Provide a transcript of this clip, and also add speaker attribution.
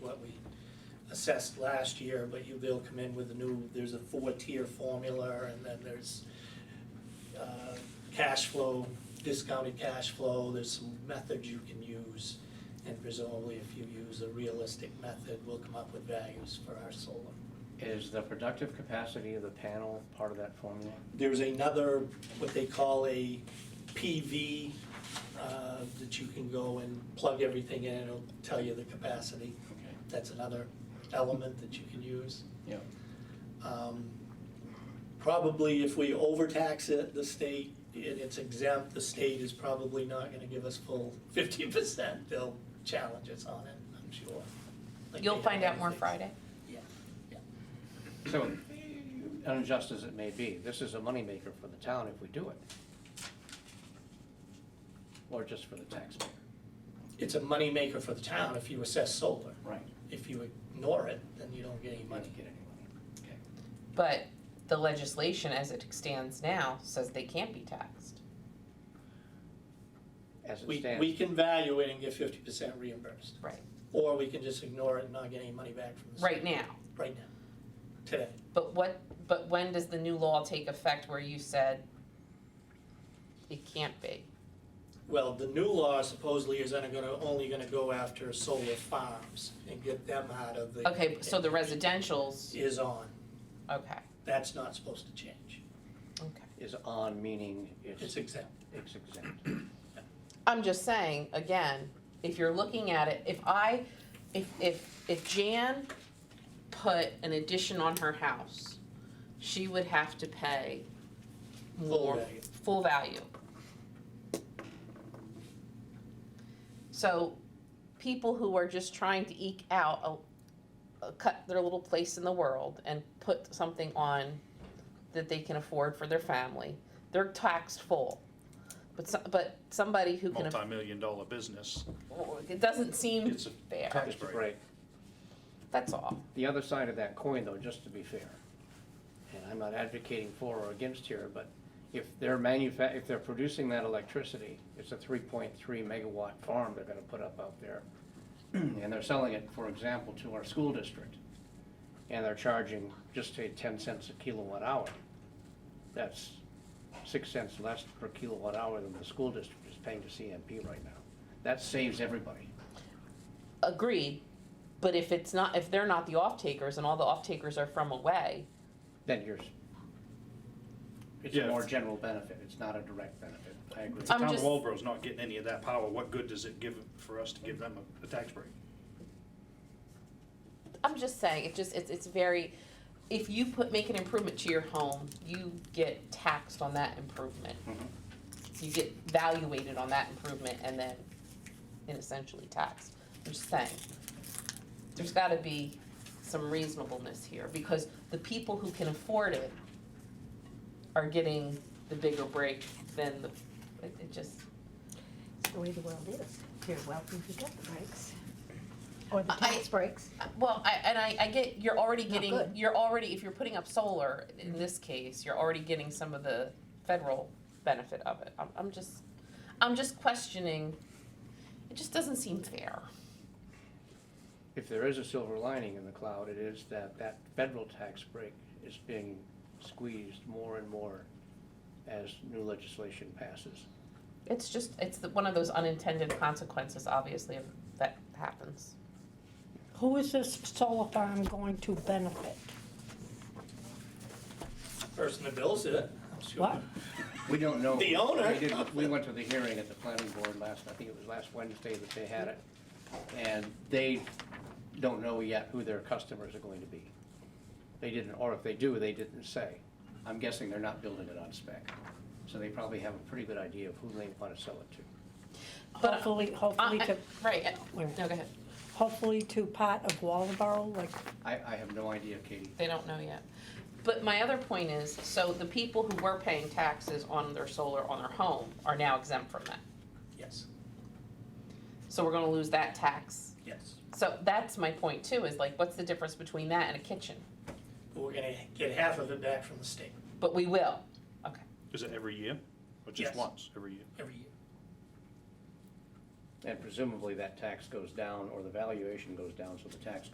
Speaker 1: assessed last year, but you, they'll come in with a new, there's a four-tier formula, and then there's uh, cash flow, discounted cash flow, there's some methods you can use. And presumably, if you use a realistic method, we'll come up with values for our solar.
Speaker 2: Is the productive capacity of the panel part of that formula?
Speaker 1: There's another, what they call a PV, uh, that you can go and plug everything in, and it'll tell you the capacity.
Speaker 2: Okay.
Speaker 1: That's another element that you can use.
Speaker 2: Yeah.
Speaker 1: Um, Probably if we overtax it, the state, and it's exempt, the state is probably not gonna give us full fifty percent. They'll challenge us on it, I'm sure. Like they
Speaker 3: You'll
Speaker 1: have
Speaker 3: find out
Speaker 1: other
Speaker 3: more
Speaker 1: things.
Speaker 3: Friday.
Speaker 1: Yeah, yeah.
Speaker 2: So, unjust as it may be, this is a moneymaker for the town if we do it. Or just for the taxpayer.
Speaker 1: It's a moneymaker for the town if you assess solar.
Speaker 2: Right.
Speaker 1: If you ignore it, then you don't get any
Speaker 2: You might
Speaker 1: money.
Speaker 2: not get any money. Okay.
Speaker 3: But the legislation as it stands now says they can't be taxed.
Speaker 2: As it
Speaker 1: We, we
Speaker 2: stands,
Speaker 1: can value it and get fifty percent reimbursed,
Speaker 3: Right.
Speaker 1: or we can just ignore it and not get any money back from the state.
Speaker 3: Right now.
Speaker 1: Right now, today.
Speaker 3: But what, but when does the new law take effect where you said it can't be?
Speaker 1: Well, the new law supposedly is only gonna, only gonna go after solar farms and get them out of the.
Speaker 3: Okay, so the residential's,
Speaker 1: Is on,
Speaker 3: okay,
Speaker 1: that's not supposed to change,
Speaker 3: okay.
Speaker 2: is on meaning
Speaker 1: it's
Speaker 2: it's,
Speaker 1: exempt.
Speaker 2: it's exempt.
Speaker 3: I'm just saying, again, if you're looking at it, if I, if, if, if Jan put an addition on her house, she would have to pay
Speaker 1: Full
Speaker 3: more,
Speaker 1: value.
Speaker 3: full value. So people who are just trying to eke out a, a cut their little place in the world and put something on that they can afford for their family, they're taxed full. But so, but somebody who can, aff-
Speaker 4: multi-million dollar business.
Speaker 3: it doesn't seem
Speaker 4: It's a
Speaker 3: fair,
Speaker 4: tax
Speaker 2: It's
Speaker 4: break.
Speaker 2: great.
Speaker 3: that's all.
Speaker 2: The other side of that coin, though, just to be fair, and I'm not advocating for or against here, but if they're manufa, if they're producing that electricity, it's a three point three megawatt farm they're gonna put up out there. And they're selling it, for example, to our school district, and they're charging just say ten cents a kilowatt hour. That's six cents less per kilowatt hour than the school district is paying to CMP right now. That saves everybody.
Speaker 3: Agreed, but if it's not, if they're not the off takers and all the off takers are from away,
Speaker 2: than yours. It's
Speaker 4: Yeah.
Speaker 2: a more general benefit, it's not a direct benefit, I agree.
Speaker 4: If the
Speaker 3: I'm
Speaker 4: town of
Speaker 3: just-
Speaker 4: Walboro's not getting any of that power, what good does it give for us to give them a, a tax break?
Speaker 3: I'm just saying, it just, it's, it's very, if you put, make an improvement to your home, you get taxed on that improvement.
Speaker 2: Mhm.
Speaker 3: You get valuated on that improvement and then, and essentially taxed, I'm just saying. There's gotta be some reasonableness here, because the people who can afford it are getting the bigger break than the, it, it just,
Speaker 5: It's the way the world is. You're welcome to get the breaks. Or the
Speaker 3: I-
Speaker 5: tax breaks.
Speaker 3: Well, I, and I, I get, you're already
Speaker 5: Not
Speaker 3: getting,
Speaker 5: good.
Speaker 3: you're already, if you're putting up solar, in this case, you're already getting some of the federal benefit of it. I'm, I'm just, I'm just questioning, it just doesn't seem fair.
Speaker 2: If there is a silver lining in the cloud, it is that that federal tax break is being squeezed more and more as new legislation passes.
Speaker 3: It's just, it's the, one of those unintended consequences, obviously, if that happens.
Speaker 6: Who is this solar farm going to benefit?
Speaker 1: Person that bills it, I'm sure.
Speaker 6: What?
Speaker 2: We don't know.
Speaker 1: The owner.
Speaker 2: We didn't, we went to the hearing at the planning board last, I think it was last Wednesday that they had it, and they don't know yet who their customers are going to be. They didn't, or if they do, they didn't say. I'm guessing they're not building it on spec, so they probably have a pretty good idea of who they want to sell it to.
Speaker 3: But-
Speaker 6: Hopefully,
Speaker 3: Uh,
Speaker 6: hopefully
Speaker 3: uh,
Speaker 6: to,
Speaker 3: Right, uh,
Speaker 6: where?
Speaker 3: no, go ahead,
Speaker 6: hopefully to part of Waldeboro, like,
Speaker 2: I, I have no idea, Katie.
Speaker 3: they don't know yet. But my other point is, so the people who were paying taxes on their solar on their home are now exempt from that.
Speaker 1: Yes,
Speaker 3: So we're gonna lose that tax
Speaker 1: yes.
Speaker 3: So that's my point too, is like, what's the difference between that and a kitchen?
Speaker 1: But we're gonna get half of it back from the state
Speaker 3: But we will.
Speaker 4: Is it every year? Or just
Speaker 1: Yes.
Speaker 4: once, every year?
Speaker 1: every year.
Speaker 2: And presumably that tax goes down, or the valuation goes down, so the tax